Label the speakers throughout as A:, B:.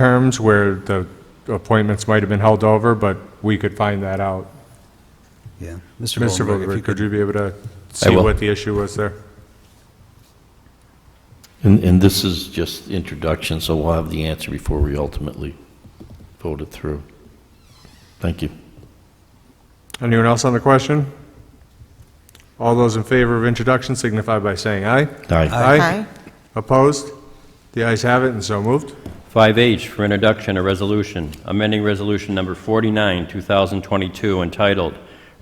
A: terms where the appointments might have been held over, but we could find that out.
B: Yeah.
A: Mr.
B: if you
A: Vogel, could
B: could-
A: you be able to see
C: will.
A: what the issue was there?
C: And, and this is just introduction, so we'll have the answer before we ultimately vote it through. Thank you.
A: Anyone else on the question? All those in favor of introduction signify by saying aye.
C: Aye.
D: Aye.
A: Opposed? The ayes have it and so moved.
E: 5H for introduction, a resolution, amending Resolution Number 49, 2022, entitled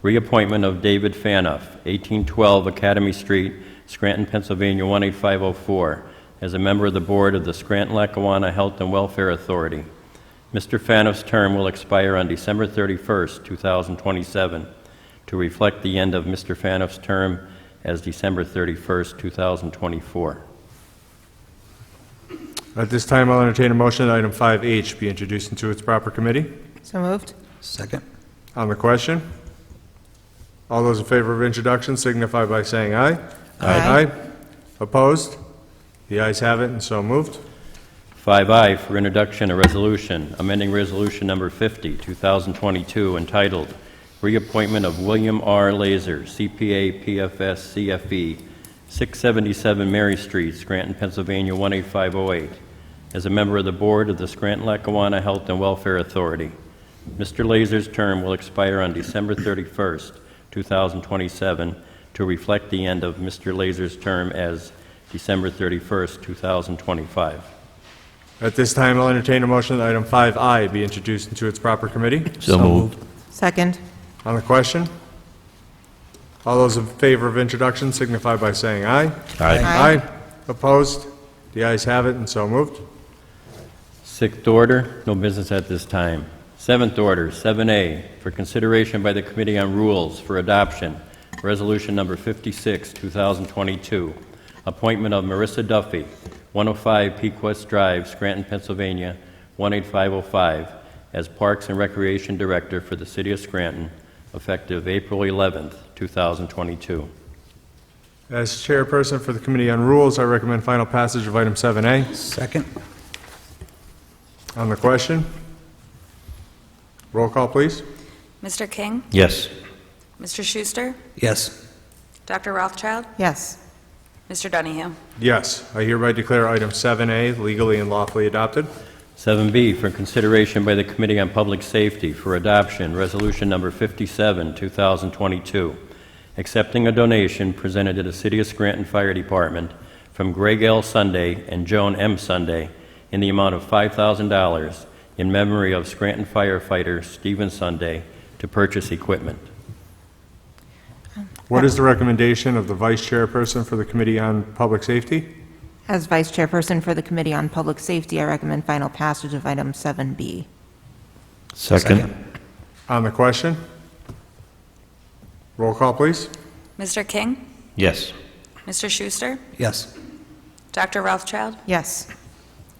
E: Reappointment of David Fanoff, 1812 Academy Street, Scranton, Pennsylvania 18504, as a member of the Board of the Scranton-Lackawanna Health and Welfare Authority. Mr. Fanoff's term will expire on December 31st, 2027, to reflect the end of Mr. Fanoff's term as December 31st, 2024.
A: At this time, I'll entertain a motion that item 5H be introduced into its proper committee.
D: So moved.
B: Second?
A: On the question, all those in favor of introduction signify by saying aye.
D: Aye.
A: Opposed? The ayes have it and so moved.
E: 5I for introduction, a resolution, amending Resolution Number 50, 2022, entitled Reappointment of William R. Laser, CPA, PFS, CFE, 677 E, Mary Street, Scranton, Pennsylvania 18508, as a member of the Board of the Scranton-Lackawanna Health and Welfare Authority. Mr. Laser's term will expire on December 31st, 2027, to reflect the end of Mr. Laser's term as December 31st, 2025.
A: At this time, I'll entertain a motion that item 5I be introduced into its proper committee.
C: So moved.
D: Second.
A: On the question, all those in favor of introduction signify by saying aye.
C: Aye.
D: Aye.
A: Opposed? The ayes have it and so moved.
E: Sixth order, no business at this time. Seventh order, 7A, for consideration by the Committee on Rules for Adoption, Resolution Number 56, 2022, appointment of Marissa Duffy, 105 Pequest Drive, Scranton, Pennsylvania, 18505, as Parks and Recreation Director for the City of Scranton, effective April 11, 2022.
A: As chairperson for the Committee on Rules, I recommend final passage of item 7A.
B: Second?
A: On the question, roll call, please.
F: Mr. King,
C: Yes.
F: Mr. Schuster,
B: Yes.
F: Dr. Rothschild,
D: Yes.
F: Mr. Donahue.
A: Yes, I hereby declare item 7A legally and lawfully adopted.
E: 7B for consideration by the Committee on Public Safety for adoption, Resolution Number 57, 2022, accepting a donation presented to the City of Scranton Fire Department from Greg L. Sunday and Joan M. Sunday in the amount of $5,000 in memory of Scranton firefighter Stephen Sunday to purchase equipment.
A: What is the recommendation of the vice chairperson for the Committee on Public Safety?
D: As Vice Chairperson for the Committee on Public Safety, I recommend final passage of item 7B.
C: Second.
A: On the question, roll call, please.
F: Mr. King,
C: Yes.
F: Mr. Schuster,
B: Yes.
F: Dr. Rothschild,
D: Yes.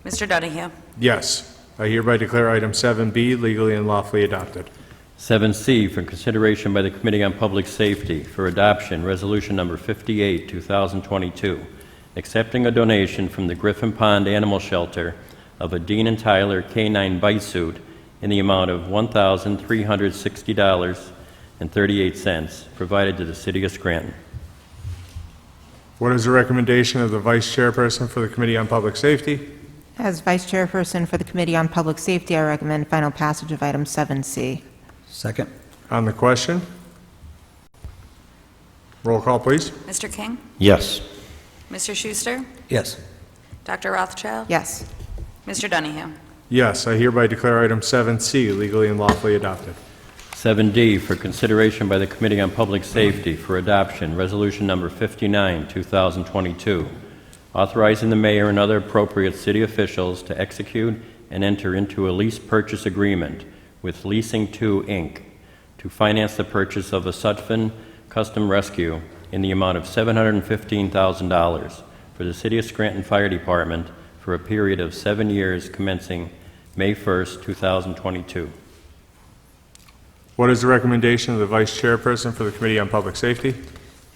F: Mr. Donahue.
A: Yes, I hereby declare item 7B legally and lawfully adopted.
E: 7C for consideration by the Committee on Public Safety for adoption, Resolution Number 58, 2022, accepting a donation from the Griffin Pond Animal Shelter of a Dean and Tyler K-9 bite suit in the amount of $1,360.38 provided to the City of Scranton.
A: What is the recommendation of the vice chairperson for the Committee on Public Safety?
D: As Vice Chairperson for the Committee on Public Safety, I recommend final passage of item 7C.
B: Second?
A: On the question, roll call, please.
F: Mr. King,
C: Yes.
F: Mr. Schuster,
B: Yes.
F: Dr. Rothschild,
D: Yes.
F: Mr. Donahue.
A: Yes, I hereby declare item 7C legally and lawfully adopted.
E: 7D for consideration by the Committee on Public Safety for adoption, Resolution Number 59, 2022, authorizing the mayor and other appropriate city officials to execute and enter into a lease purchase agreement with Leasing 2, Inc., to finance the purchase of a Sutphen Custom Rescue in the amount of $715,000 for the City of Scranton Fire Department for a period of seven years commencing May 1st, 2022.
A: What is the recommendation of the vice chairperson for the Committee on Public Safety?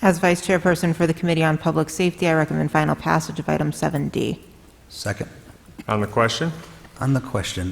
D: As Vice Chairperson for the Committee on Public Safety, I recommend final passage of item 7D.
B: Second?
A: On the question,
B: on the question,